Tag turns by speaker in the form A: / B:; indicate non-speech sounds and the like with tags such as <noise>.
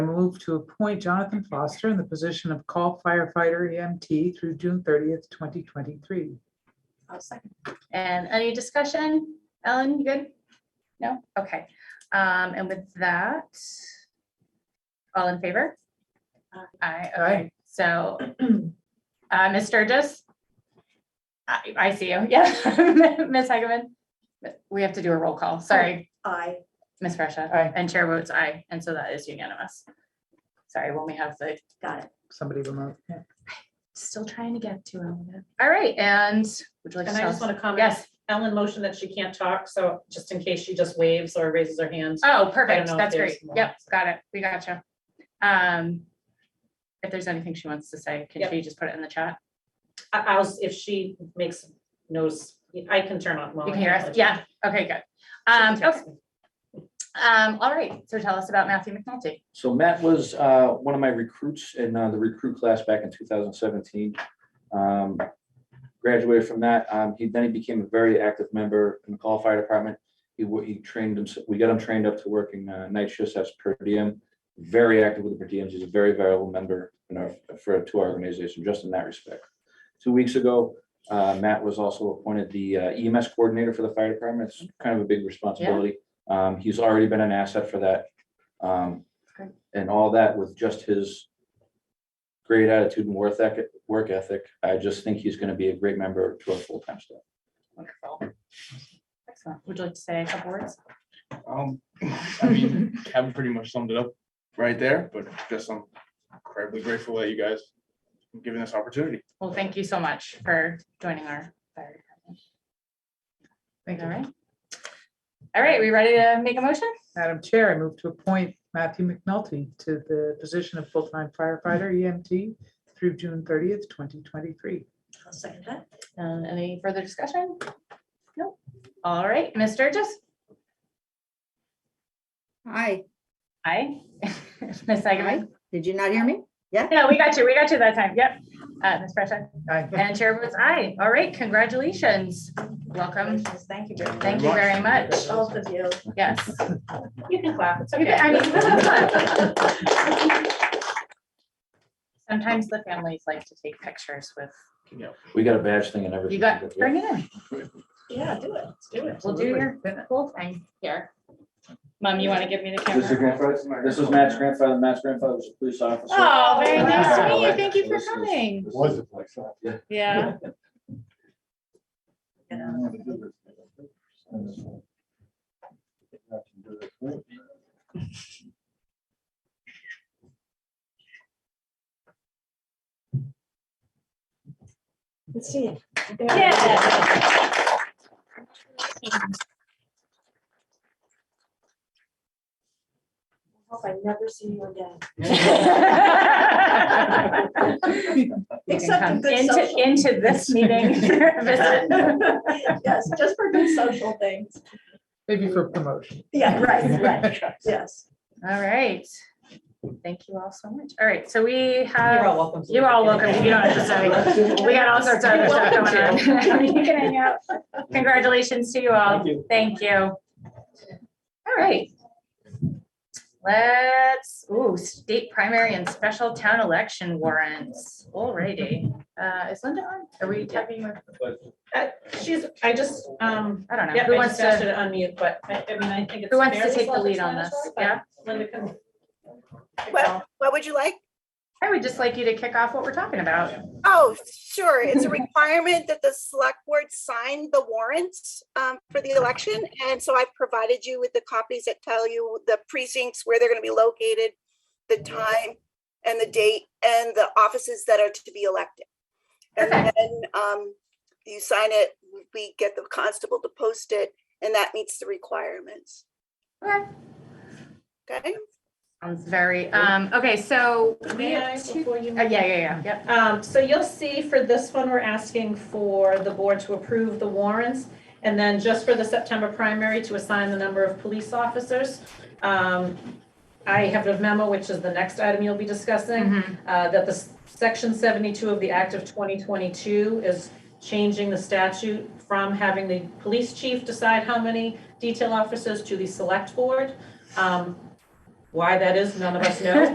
A: move to appoint Jonathan Foster in the position of call firefighter EMT through June thirtieth, twenty twenty-three.
B: I'll second.
C: And any discussion? Ellen, you good? No? Okay. Um, and with that, all in favor?
B: Aye.
C: Aye, okay. So, <clears throat> uh, Ms. Sturgis? I, I see you, <laughs> yeah. Ms. Hageman? We have to do a roll call, sorry,
B: I,
C: Ms. Fresha.
A: Aye.
C: And Chair votes aye, and so that is unanimous. Sorry, when we have the
B: got it.
A: Somebody remote. yeah.
C: Still trying to get to Elena. All right, and would you like to
D: And I
C: tell
D: just
C: us?
D: want to comment,
C: Yes,
D: Ellen motioned that she can't talk, so just in case she just waves or raises her hand.
C: oh,
D: I don't
C: perfect,
D: know if
C: that's
D: there's
C: great.
D: more.
C: Yep, got it, we got you. Um, if there's anything she wants to say, can
D: Yep.
C: she just put it in the chat?
D: I, I was, if she makes, knows, I can turn on. well,
C: You
D: I
C: can hear
D: can't
C: us?
D: let you-
C: Yeah, okay, good.
D: she can
C: Um,
D: text
C: okay,
D: me.
C: um, all right, so tell us about Matthew McNulty.
E: So Matt was uh, one of my recruits in uh, the recruit class back in 2017. Um, Graduated from that. Um, He, then he became a very active member in the call fire department. He, wa- he trained him, we got him trained up to working uh, night shifts as per diem. Very active with the per diems. He's a very valuable member in our, for, to our organization, just in that respect. Two weeks ago, uh, Matt was also appointed the uh, EMS coordinator for the fire department. It's kind of a big responsibility. Um, He's already been an asset for that. Um, and all that with just his great attitude and worth ethic, work ethic, I just think he's gonna be a great member to our full-time staff.
C: Wonderful. Excellent, would you like to say a couple words?
F: Um, I mean, Kevin pretty much summed it up right there, but just I'm incredibly grateful that you guys have given this opportunity.
C: Well, thank you so much for joining our. fire department.
A: Thank
C: All
A: you.
C: right. All right, we ready to make a motion?
A: Madam Chair, I move to appoint Matthew McNulty to the position of full-time firefighter EMT through June thirtieth, twenty twenty-three.
B: I'll second that.
D: Uh,
C: Um, any further discussion? No. All right, Ms. Sturgis?
G: Hi,
C: Aye. <laughs> Ms. Sagamore?
G: did you not hear me?
C: No, we got you. We got you that time. Yep. Uh, Ms. Fresha?
A: Aye.
C: And Chair votes aye. All right, congratulations. Welcome.
B: Congratulations. Thank you very much.
C: Thank you very much.
B: Both of you.
C: Yes.
D: You can clap, it's
C: You
D: okay.
C: can- <laughs> I mean- Sometimes the families like to take pictures with,
E: We got a badge thing and everything.
C: you got, bring it in.
B: Yeah, do it. Let's do it.
C: We'll do your whole thing here. Mom, you want to give me the
E: This is
C: camera?
E: grandfather, this is Matt's grandfather, Matt's grandfather was a police officer.
C: Oh, very nice to meet you.
E: Wow.
C: Thank you for
E: This is-
C: coming.
E: this
F: Was
E: is-
C: Yeah.
B: Let's see. it.
C: <laughs> Yeah.
B: Hope I never see
C: <laughs>
B: you again.
C: You can
B: Except
C: come
B: in good
C: Into,
B: social. <laughs>
C: into this meeting. <laughs> Visit.
B: Yes, just for good social things.
A: Maybe for promotion.
B: Yeah, right, right. Yes.
C: All right. Thank you all so much. All right, so we
D: You're all
C: have,
D: welcome. to
C: you're all
D: leave.
C: welcome. You don't have to
D: <laughs>
C: say. We got all sorts of other stuff <laughs> going on. You can hang out. Congratulations to you all. Thank you. All right. Let's, ooh, state primary and special town election warrants. Alrighty. Uh, is Linda on? Are we tapping her?
D: She's, I just, um,
C: I don't know.
D: yeah,
C: Who
D: I
C: wants
D: just asked her
C: to,
D: to unmute, but I, I mean, I think it's.
C: who wants to
D: fairly
C: take the lead on this?
D: self-explanatory, but
C: Yeah?
D: Linda can.
H: Well- What would you like?
C: I would just like you to kick off what we're talking about.
H: Oh, sure. It's a requirement that the select board sign the warrants um, for the election. And so I provided you with the copies that tell you the precincts, where they're going to be located, the
C: Mm-hmm.
H: time and the date and the offices that are to be elected. And
C: Okay.
H: then um, you sign it, we get the constable to post it, and that meets the requirements.
C: Okay.
H: Okay?
C: Sounds very, um, okay, so we
D: May I,
C: have two,
D: before you?
C: uh, yeah, yeah, yeah, yep.
D: Um, so you'll see for this one, we're asking for the board to approve the warrants. And then just for the September primary, to assign the number of police officers. Um, I have a memo, which is the next item you'll be discussing,
C: Mhm.
D: uh, that the s- section seventy-two of the Act of twenty twenty-two is changing the statute from having the police chief decide how many detail officers to the select board. Um, Why that is, none of us know,